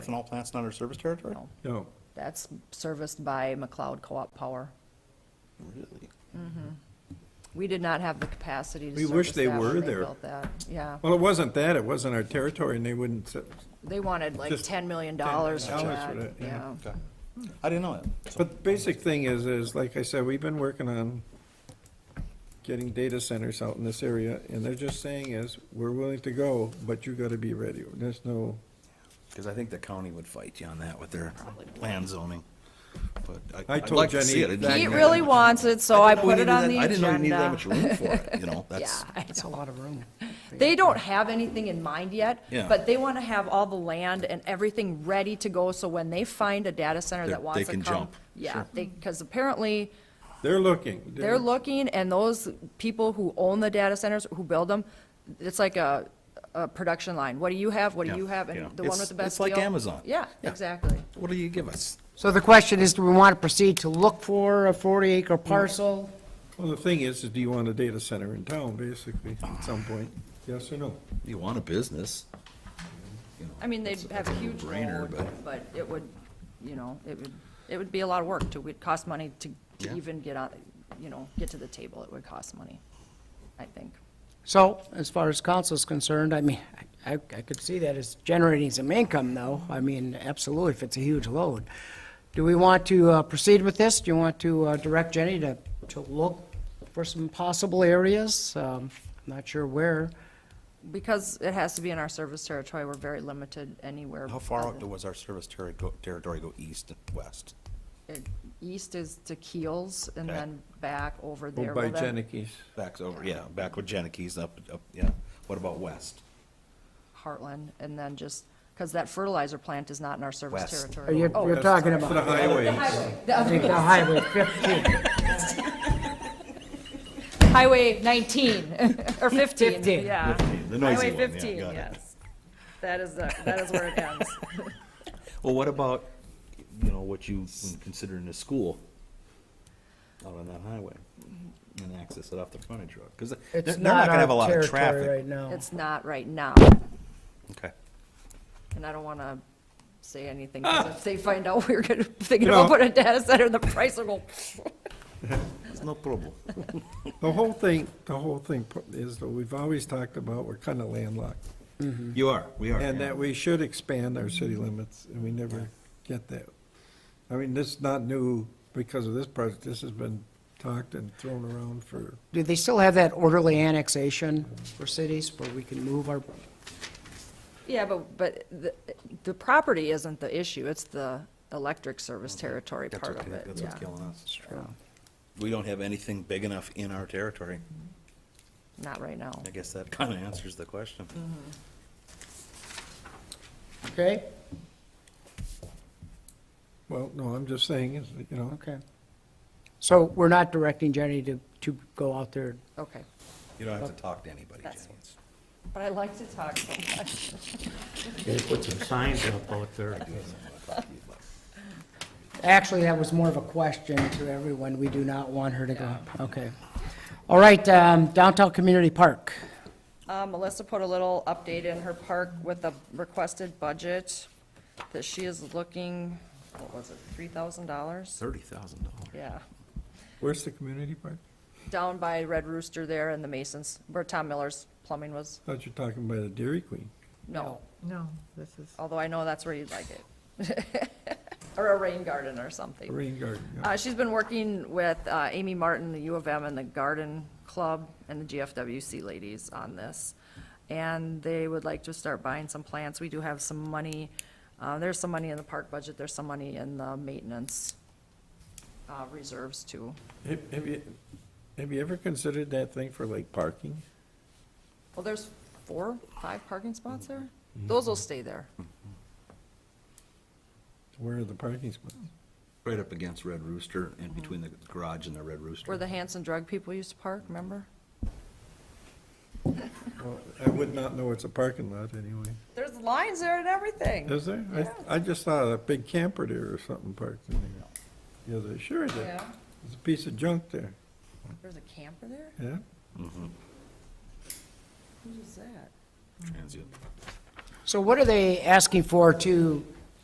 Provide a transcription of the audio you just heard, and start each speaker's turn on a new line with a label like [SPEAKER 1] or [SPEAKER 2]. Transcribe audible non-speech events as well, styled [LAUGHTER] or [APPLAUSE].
[SPEAKER 1] ethanol plants not under service territory?
[SPEAKER 2] No.
[SPEAKER 3] No,
[SPEAKER 2] That's serviced by McLeod Co-op Power. Mm-hmm.
[SPEAKER 1] Really?
[SPEAKER 2] We did not have the capacity to
[SPEAKER 3] We
[SPEAKER 2] service
[SPEAKER 3] wish they
[SPEAKER 2] that when
[SPEAKER 3] were
[SPEAKER 2] they
[SPEAKER 3] there.
[SPEAKER 2] built that. Yeah,
[SPEAKER 3] well, it wasn't that, it wasn't our territory, and they wouldn't, s-
[SPEAKER 2] they wanted like
[SPEAKER 3] Just
[SPEAKER 2] $10 million for
[SPEAKER 3] $10 million for
[SPEAKER 2] that,
[SPEAKER 3] that, yeah.
[SPEAKER 2] yeah.
[SPEAKER 1] Okay. I didn't know that.
[SPEAKER 3] but the basic thing is, is like I said, we've been working on getting data centers out in this area, and they're just saying is, we're willing to go, but you gotta be ready. There's no,
[SPEAKER 1] Because I think the county would fight you on that with their land zoning. But
[SPEAKER 3] I
[SPEAKER 1] I, I'd
[SPEAKER 3] told
[SPEAKER 1] like to see it.
[SPEAKER 3] Jenny
[SPEAKER 1] I didn't
[SPEAKER 2] He
[SPEAKER 1] know
[SPEAKER 2] really
[SPEAKER 1] that much.
[SPEAKER 2] wants it, so I
[SPEAKER 1] didn't know we
[SPEAKER 2] put it
[SPEAKER 1] needed
[SPEAKER 2] on
[SPEAKER 1] that-
[SPEAKER 2] the agenda.
[SPEAKER 1] I didn't know we needed that much room for it, you
[SPEAKER 2] [LAUGHS]
[SPEAKER 1] know,
[SPEAKER 2] Yeah,
[SPEAKER 1] that's,
[SPEAKER 2] I
[SPEAKER 4] That's a lot of room.
[SPEAKER 2] They don't have anything in mind yet.
[SPEAKER 1] Yeah.
[SPEAKER 2] But they want to have all the land and everything ready to go, so when they find a data center
[SPEAKER 1] They're-
[SPEAKER 2] that wants
[SPEAKER 1] they
[SPEAKER 2] to come.
[SPEAKER 1] can jump.
[SPEAKER 2] Yeah, they, because apparently,
[SPEAKER 3] they're looking.
[SPEAKER 2] they're looking, and those people who own the data centers, who build them, it's like a, a production line. What do you have? What
[SPEAKER 1] Yeah,
[SPEAKER 2] do you have?
[SPEAKER 1] yeah.
[SPEAKER 2] And the one
[SPEAKER 1] It's-
[SPEAKER 2] with the best
[SPEAKER 1] it's like
[SPEAKER 2] deal-
[SPEAKER 1] Amazon.
[SPEAKER 2] Yeah,
[SPEAKER 1] Yeah.
[SPEAKER 2] exactly.
[SPEAKER 1] what do you give us?
[SPEAKER 4] So the question is, do we want to proceed to look for a 40-acre parcel?
[SPEAKER 3] Well, the thing is, is do you want a data center in town, basically, at some point? Yes or no?
[SPEAKER 1] You want a business.
[SPEAKER 2] I mean, they'd have a huge
[SPEAKER 1] no-brainer,
[SPEAKER 2] load,
[SPEAKER 1] but-
[SPEAKER 2] but it would, you know, it would, it would be a lot of work to, it'd cost money to,
[SPEAKER 1] Yeah.
[SPEAKER 2] to even get on, you know, get to the table. It would cost money, I think.
[SPEAKER 4] So, as far as council's concerned, I mean, I, I could see that it's generating some income, though. I mean, absolutely, if it's a huge load. Do we want to uh, proceed with this? Do you want to uh, direct Jenny to, to look for some possible areas? Um, I'm Not sure where.
[SPEAKER 2] Because it has to be in our service territory, we're very limited anywhere.
[SPEAKER 1] How far out
[SPEAKER 2] other-
[SPEAKER 1] does our service terri- go- territory go east and west?
[SPEAKER 2] it- East is to Keels and
[SPEAKER 1] Okay.
[SPEAKER 2] then back over
[SPEAKER 3] Go
[SPEAKER 2] there.
[SPEAKER 3] by
[SPEAKER 2] Well, then
[SPEAKER 3] Janikis.
[SPEAKER 1] Backs over, yeah, back with Janikis up, up, yeah. What about west?
[SPEAKER 2] Heartland and then just, because that fertilizer plant is not in our service
[SPEAKER 1] West.
[SPEAKER 4] Are
[SPEAKER 2] territory.
[SPEAKER 4] you,
[SPEAKER 2] Oh,
[SPEAKER 4] Uh, you're talking
[SPEAKER 3] For the
[SPEAKER 4] about,
[SPEAKER 3] highways.
[SPEAKER 4] I think the highway 15,
[SPEAKER 2] Highway 19, [LAUGHS] or 15,
[SPEAKER 4] 15.
[SPEAKER 2] yeah.
[SPEAKER 1] 15, the noisy
[SPEAKER 2] Highway
[SPEAKER 1] one, yeah,
[SPEAKER 2] 15,
[SPEAKER 1] got it.
[SPEAKER 2] yes. That is, the- that is where
[SPEAKER 1] [LAUGHS]
[SPEAKER 2] it ends.
[SPEAKER 1] Well, what about, you know, what you would consider in a school out on that highway? And access it off the frontage road, because they're
[SPEAKER 4] It's
[SPEAKER 1] they're not
[SPEAKER 4] not
[SPEAKER 1] gonna have a
[SPEAKER 4] our
[SPEAKER 1] lot of
[SPEAKER 4] territory right
[SPEAKER 1] traffic.
[SPEAKER 4] now.
[SPEAKER 2] It's not right now,
[SPEAKER 1] Okay.
[SPEAKER 2] and I don't want to say anything,
[SPEAKER 1] Ah!
[SPEAKER 2] because if they find out we're [LAUGHS] going to, thinking
[SPEAKER 3] You
[SPEAKER 2] about
[SPEAKER 3] know.
[SPEAKER 2] putting a data center, the price will go.
[SPEAKER 1] It's no problem.
[SPEAKER 3] The whole thing, the whole thing pu- is that we've always talked about, we're kind of landlocked.
[SPEAKER 1] You are, we are.
[SPEAKER 3] And that we should expand our city limits, and we never get that. I mean, this is not new because of this project, this has been talked and thrown around for,
[SPEAKER 4] Do they still have that orderly annexation for cities where we can move our,
[SPEAKER 2] Yeah, but, but the, the property isn't the issue, it's the electric service territory
[SPEAKER 1] That's
[SPEAKER 2] part
[SPEAKER 1] what-
[SPEAKER 2] of it,
[SPEAKER 1] That's
[SPEAKER 2] yeah.
[SPEAKER 1] what's killing us.
[SPEAKER 4] uh,
[SPEAKER 1] We don't have anything big enough in our territory.
[SPEAKER 2] Not right now.
[SPEAKER 1] I guess that kind of answers the question.
[SPEAKER 4] okay?
[SPEAKER 3] well, no, I'm just saying, is, you know,
[SPEAKER 4] Okay. So we're not directing Jenny to, to go out there.
[SPEAKER 2] Okay,
[SPEAKER 1] You don't have to talk to anybody, Jenny.
[SPEAKER 2] That's- but I like to talk so much.
[SPEAKER 5] They put some signs up out there.
[SPEAKER 4] Actually, that was more of a question to everyone. We do not want her to go. Okay. All right, um, downtown community park.
[SPEAKER 2] Uh, Melissa put a little update in her park with a requested budget that she is looking, what was it, three thousand dollars?
[SPEAKER 1] Thirty thousand dollars.
[SPEAKER 2] Yeah,
[SPEAKER 3] where's the community park?
[SPEAKER 2] down by Red Rooster there and the Masons, where Tom Miller's plumbing was,
[SPEAKER 3] Thought you're talking about the Dairy Queen.
[SPEAKER 2] no,
[SPEAKER 6] No, this is,
[SPEAKER 2] although I know that's where you'd like it. [LAUGHS] Or a rain garden or something.
[SPEAKER 3] Rain garden, yeah.
[SPEAKER 2] Uh, she's been working with, uh, Amy Martin, the U of M and the Garden Club and the GFWC ladies on this. And they would like to start buying some plants. We do have some money, uh, there's some money in the park budget, there's some money in the maintenance, uh, reserves too.
[SPEAKER 3] Have have you, have you ever considered that thing for like parking?
[SPEAKER 2] Well, there's four, five parking spots there? Those will stay there.
[SPEAKER 3] Where are the parking spots?
[SPEAKER 1] Right up against Red Rooster and between the garage and the Red Rooster.
[SPEAKER 2] Where the Hanson drug people used to park, remember?
[SPEAKER 3] Well, I would not know it's a parking lot anyway.
[SPEAKER 2] There's lines there and everything.
[SPEAKER 3] Is there? I, I just saw a big camper there or something parked in there. Yeah, there sure is.
[SPEAKER 2] Yeah,
[SPEAKER 3] There's a piece of junk there,
[SPEAKER 2] there's a camper there?
[SPEAKER 3] yeah?
[SPEAKER 2] Who's that?
[SPEAKER 1] Transient.
[SPEAKER 4] So what are they asking for to